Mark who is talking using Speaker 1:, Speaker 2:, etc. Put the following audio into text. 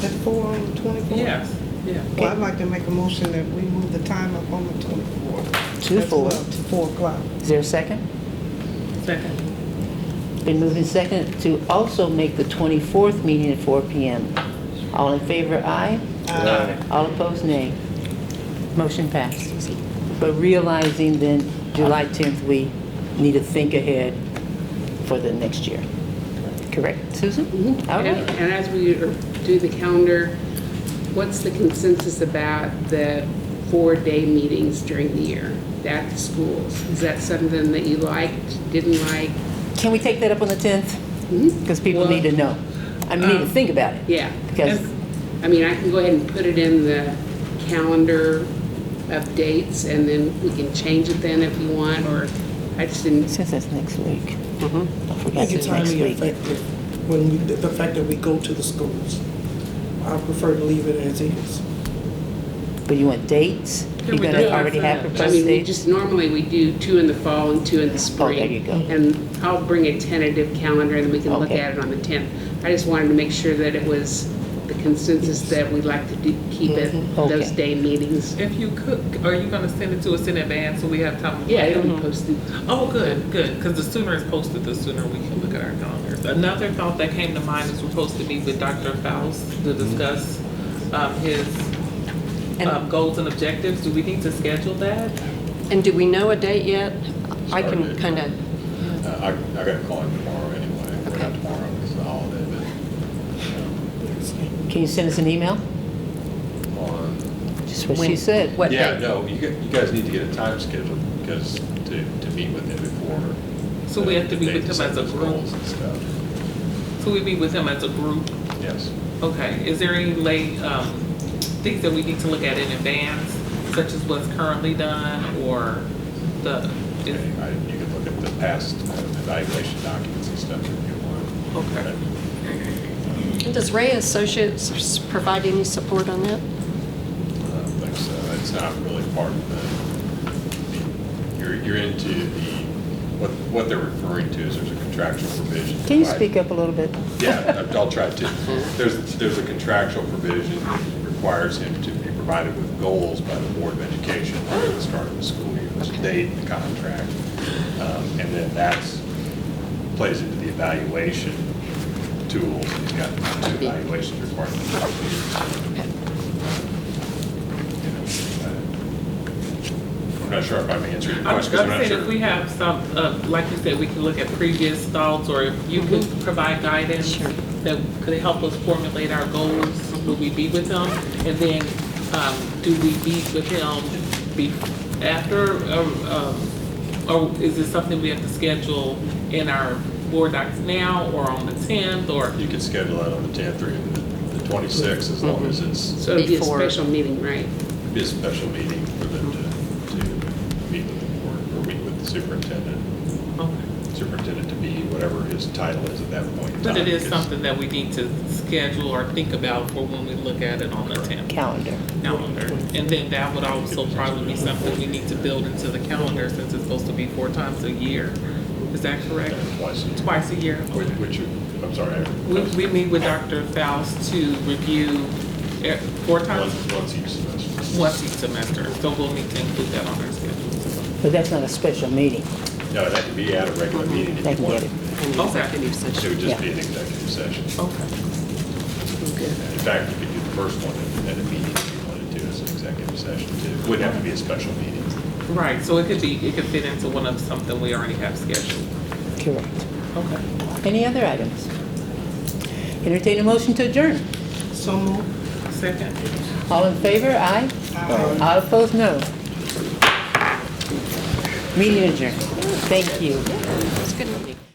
Speaker 1: At four on the twenty-fourth?
Speaker 2: Yes, yeah.
Speaker 1: Well, I'd like to make a motion that we move the time up on the twenty-fourth.
Speaker 3: To four.
Speaker 1: To four o'clock.
Speaker 3: Is there a second?
Speaker 2: Second.
Speaker 3: Been moved and second to also make the 24th meeting at 4 PM. All in favor, aye.
Speaker 2: Aye.
Speaker 3: All opposed, nay. Motion passed. Uh-huh. But realizing then July 10th, we need to think ahead for the next year. Correct, Susan? All
Speaker 4: Mm-hmm. Yeah,
Speaker 3: right.
Speaker 4: And as we do the calendar, what's the consensus about the four-day meetings during the year at the schools? Is that something that you liked, didn't like?
Speaker 3: Can we take that up on the 10th? Because people need to know. I mean, need to think about it.
Speaker 4: Yeah.
Speaker 3: Because-
Speaker 4: I mean, I can go ahead and put it in the calendar of dates, and then we can change it then if you want, or I just didn't,
Speaker 3: Since that's next week. I
Speaker 5: I
Speaker 3: forgot
Speaker 5: think it's
Speaker 3: it's next
Speaker 5: highly
Speaker 3: week.
Speaker 5: effective when we, the the fact that we go to the schools. I prefer to leave it as is.
Speaker 3: But you want dates? You're
Speaker 2: we
Speaker 3: going
Speaker 2: do
Speaker 3: to
Speaker 2: it
Speaker 3: already have
Speaker 2: first?
Speaker 4: I
Speaker 3: proposed
Speaker 4: mean, we
Speaker 3: dates?
Speaker 4: just, normally we do two in the fall and two in the spring.
Speaker 3: there you go.
Speaker 4: And I'll bring a tentative calendar, and we can look
Speaker 3: Okay.
Speaker 4: at it on the 10th. I just wanted to make sure that it was the consensus that we'd like to do- keep it, those
Speaker 3: Mm-hmm. Okay.
Speaker 4: day meetings.
Speaker 2: If you could, are you gonna send it to us in advance so we have time? to
Speaker 4: Yeah,
Speaker 2: look at
Speaker 4: it'll be posted.
Speaker 2: Oh, good, good, because the sooner it's posted, the sooner we can look at our calendars. Another thought that came to mind is we're supposed to meet with Dr. Faust
Speaker 4: Mm-hmm.
Speaker 2: to discuss um, his
Speaker 6: And-
Speaker 2: um, goals and objectives. Do we need to schedule that?
Speaker 6: And do we know a date yet? I can kind of,
Speaker 7: Uh, I, I got to call him tomorrow anyway, We're not
Speaker 6: Okay.
Speaker 7: tomorrow, it's a holiday, but,
Speaker 3: Can you send us an email?
Speaker 7: you know, on.
Speaker 3: Just what she
Speaker 6: When-
Speaker 3: said.
Speaker 6: what
Speaker 7: Yeah,
Speaker 6: date?
Speaker 7: no, you, gu- you guys need to get a time scheduled, because to, to meet with him before.
Speaker 2: So we have to
Speaker 7: the-
Speaker 2: meet
Speaker 7: they
Speaker 2: with him as
Speaker 7: set
Speaker 2: a
Speaker 7: those
Speaker 2: group?
Speaker 7: goals and stuff,
Speaker 2: So we meet with him as a group?
Speaker 7: yes.
Speaker 2: Okay, is there any late, um, things that we need to look at in advance, such as what's currently done or the,
Speaker 7: Okay,
Speaker 2: is-
Speaker 7: I- You can look at the past uh, evaluation documents and stuff if you want.
Speaker 2: Okay.
Speaker 6: And Does Ray Associates s- provide any support on that?
Speaker 7: Thanks, it's not really part of the, you're, you're into the, what, what they're referring to is there's a contractual provision.
Speaker 3: Can you
Speaker 7: provided-
Speaker 3: speak up a little bit?
Speaker 7: Yeah, I'll try to. There's, there's a contractual provision that requires him to be provided with goals by the Board of Education at the start of the school year, there's a date in the contract. Um, And then that's, plays into the evaluation tools, he's got two evaluations required. in the school year, so, you know, uh, I'm not sure if I'm answering your
Speaker 2: I
Speaker 7: question,
Speaker 2: was
Speaker 7: 'cause
Speaker 2: gonna
Speaker 7: I'm not
Speaker 2: say,
Speaker 7: sure.
Speaker 2: if we have some, uh, like you said, we can look at previous thoughts, or if you could provide guidance
Speaker 6: Sure.
Speaker 2: that could help us formulate our goals, will we be with them? And then, um, do we be with him be, after, or, um, or is this something we have to schedule in our board docs now, or on the tenth, or?
Speaker 7: You could schedule that on the 10th or even the- the 26th, as long as it's
Speaker 4: So it'll be a
Speaker 6: Before.
Speaker 4: special meeting, right?
Speaker 7: be a special meeting for them to, to meet with the board or meet with the superintendent,
Speaker 2: Okay.
Speaker 7: superintendent to be whatever his title is at that point in time.
Speaker 2: But it is
Speaker 7: 'cause-
Speaker 2: something that we need to schedule or think about for when we look at it on the tenth.
Speaker 3: Calendar.
Speaker 2: calendar. And then that would also probably be something we need to build into the calendar since it's supposed to be four times a year. Is that correct?
Speaker 7: Yeah, Twice. a year.
Speaker 2: Twice a year?
Speaker 7: Which, which you- I'm sorry. I-
Speaker 2: We, we meet with Dr. Faust to review eh, four times,
Speaker 7: Once, once each semester.
Speaker 2: once each semester. So we'll need to include that on our schedule.
Speaker 3: But that's not a special meeting.
Speaker 7: No, that could be at a regular meeting
Speaker 3: Mm-hmm. They can get
Speaker 7: if you want.
Speaker 3: it.
Speaker 2: Okay,
Speaker 7: It would
Speaker 3: Yeah.
Speaker 7: just be an executive session.
Speaker 2: okay.
Speaker 7: In fact, you could do the first one at a meeting if you wanted to as an executive session too. Wouldn't have to be a special meeting.
Speaker 2: Right, so it could be, it could fit into one of something we already have scheduled.
Speaker 3: Correct.
Speaker 2: Okay.
Speaker 3: Any other items? Entertain a motion to adjourn.
Speaker 1: So moved.
Speaker 2: Second.
Speaker 3: All in favor, aye.
Speaker 1: Aye.
Speaker 3: All opposed, no. Meeting adjourned. Thank you.
Speaker 6: It's good meeting.